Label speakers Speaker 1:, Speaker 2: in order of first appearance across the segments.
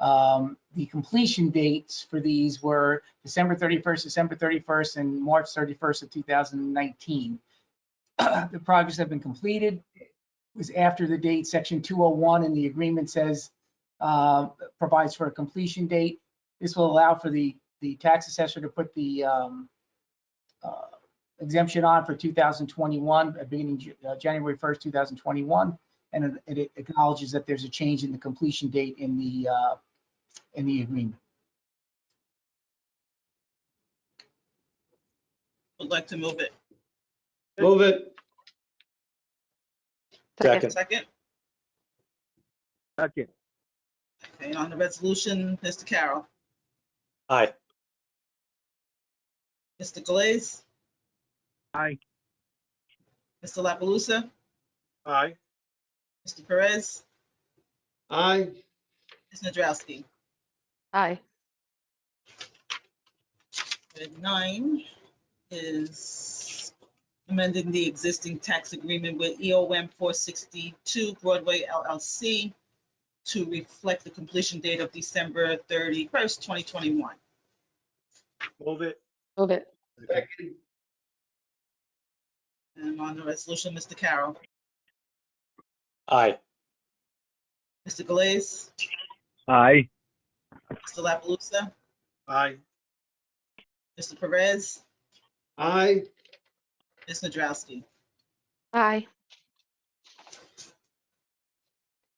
Speaker 1: Um, The completion dates for these were December 31st, December 31st, and March 31st of 2019. The projects have been completed. It was after the date, section 201, and the agreement says, uh, provides for a completion date. This will allow for the, the tax assessor to put the um, uh, exemption on for 2021, uh, beginning Ju- uh, January 1st, 2021. And it it acknowledges that there's a change in the completion date in the, uh, in the agreement.
Speaker 2: Would like to move it.
Speaker 3: Move it. Second.
Speaker 2: Second,
Speaker 4: Second,
Speaker 2: okay, on the resolution, Mr. Carroll,
Speaker 3: Aye.
Speaker 2: Mr. Galais,
Speaker 4: aye.
Speaker 2: Mr. La Palusa,
Speaker 3: Aye.
Speaker 2: Mr. Perez,
Speaker 3: Aye.
Speaker 2: Ms. Nadrowski.
Speaker 5: Aye.
Speaker 2: Item Nine is amending the existing tax agreement with E EOM 462 Broadway LLC to reflect the completion date of December 31st, 2021.
Speaker 3: Move it.
Speaker 5: Move it.
Speaker 2: And on the resolution, Mr. Carroll,
Speaker 3: Aye.
Speaker 2: Mr. Galais,
Speaker 4: Aye.
Speaker 2: Mr. La Palusa,
Speaker 3: Aye.
Speaker 2: Mr. Perez,
Speaker 3: Aye.
Speaker 2: Ms. Nadrowski.
Speaker 5: Aye.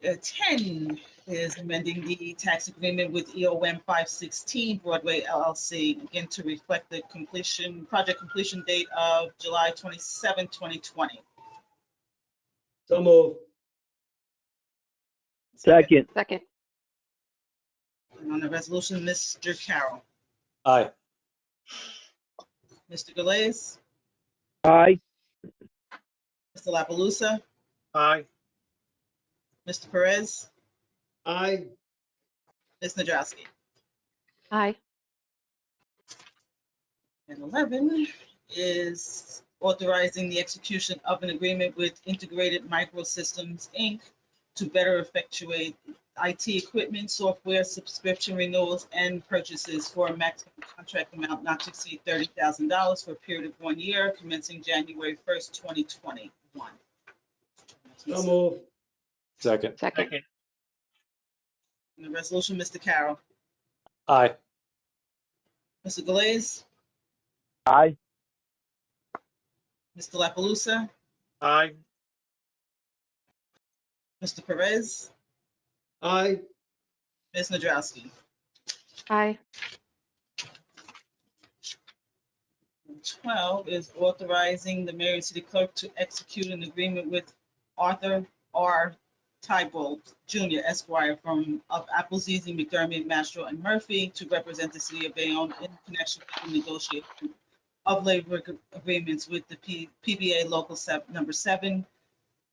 Speaker 2: Uh, 10 is amending the tax agreement with E EOM 516 Broadway LLC, again to reflect the completion, project completion date of July 27, 2020.
Speaker 3: So move.
Speaker 4: Second,
Speaker 5: Second.
Speaker 2: And on the resolution, Mr. Carroll,
Speaker 3: Aye.
Speaker 2: Mr. Galais,
Speaker 4: aye.
Speaker 2: Mr. La Palusa,
Speaker 3: Aye.
Speaker 2: Mr. Perez,
Speaker 3: Aye.
Speaker 2: Ms. Nadrowski.
Speaker 5: Aye.
Speaker 2: And 11 is authorizing the execution of an agreement with Integrated Microsystems, Inc. to better effectuate IT equipment, software, subscription renewals, and purchases for a maximum contract amount not to exceed $30,000 for a period of one year commencing January 1st, 2021.
Speaker 3: So move. Second.
Speaker 5: Second.
Speaker 2: And The resolution, Mr. Carroll,
Speaker 3: Aye.
Speaker 2: Mr. Galais,
Speaker 4: Aye.
Speaker 2: Mr. La Palusa,
Speaker 3: Aye.
Speaker 2: Mr. Perez,
Speaker 3: Aye.
Speaker 2: Ms. Nadrowski.
Speaker 5: Aye.
Speaker 2: 12 is authorizing the mayor and city clerk to execute an agreement with Arthur R. Tybalt Jr. Esquire from of Appleseas and McDermott, Mastro and Murphy to represent the city of Bayonne in connection with the negotiation of labor ag- agreements with the P- PBA Local Sep- Number 7,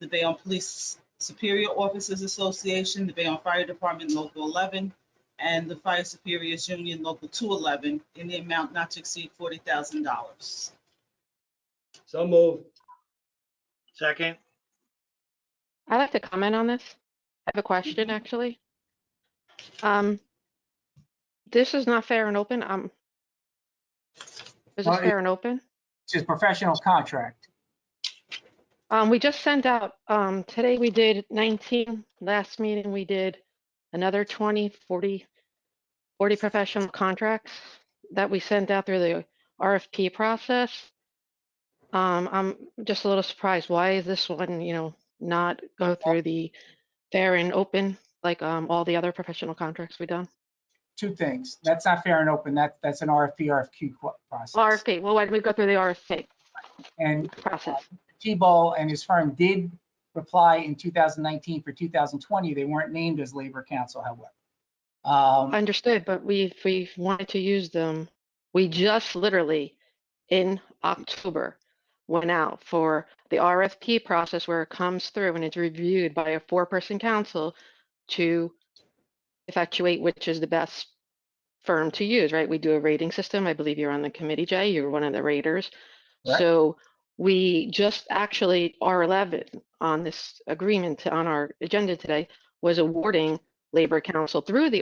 Speaker 2: the Bayonne Police Superior Officers Association, the Bayonne Fire Department Local 11, and the Fire Superiors Union Local 211 in the amount not to exceed $40,000.
Speaker 3: So move. Second.
Speaker 5: I'd like to comment on this. I have a question, actually. Um, this is not fair and open. Um, is
Speaker 1: Well,
Speaker 5: this
Speaker 1: it-
Speaker 5: fair and open?
Speaker 1: It's just professional contract.
Speaker 5: Um, we just sent out, um, today we did 19, last meeting we did another 20, 40, 40 professional contracts that we sent out through the RFP process. Um, I'm just a little surprised, why is this one, you know, not go through the fair and open, like, um, all the other professional contracts we done?
Speaker 1: Two things. That's not fair and open. That, that's an RFP, RFQ qu- process.
Speaker 5: RFP, well, why did we go through the RFP
Speaker 1: And
Speaker 5: process?
Speaker 1: T-Ball and his firm did reply in 2019 for 2020. They weren't named as labor council, however. Um,
Speaker 5: Understood, but we, if we wanted to use them, we just literally in October went out for the RFP process where it comes through and it's reviewed by a four-person council to effectuate which is the best firm to use, right? We do a rating system. I believe you're on the committee, Jay. You're one of the raters.
Speaker 1: Correct.
Speaker 5: So we just actually, R11 on this agreement, on our agenda today, was awarding Labor Council through the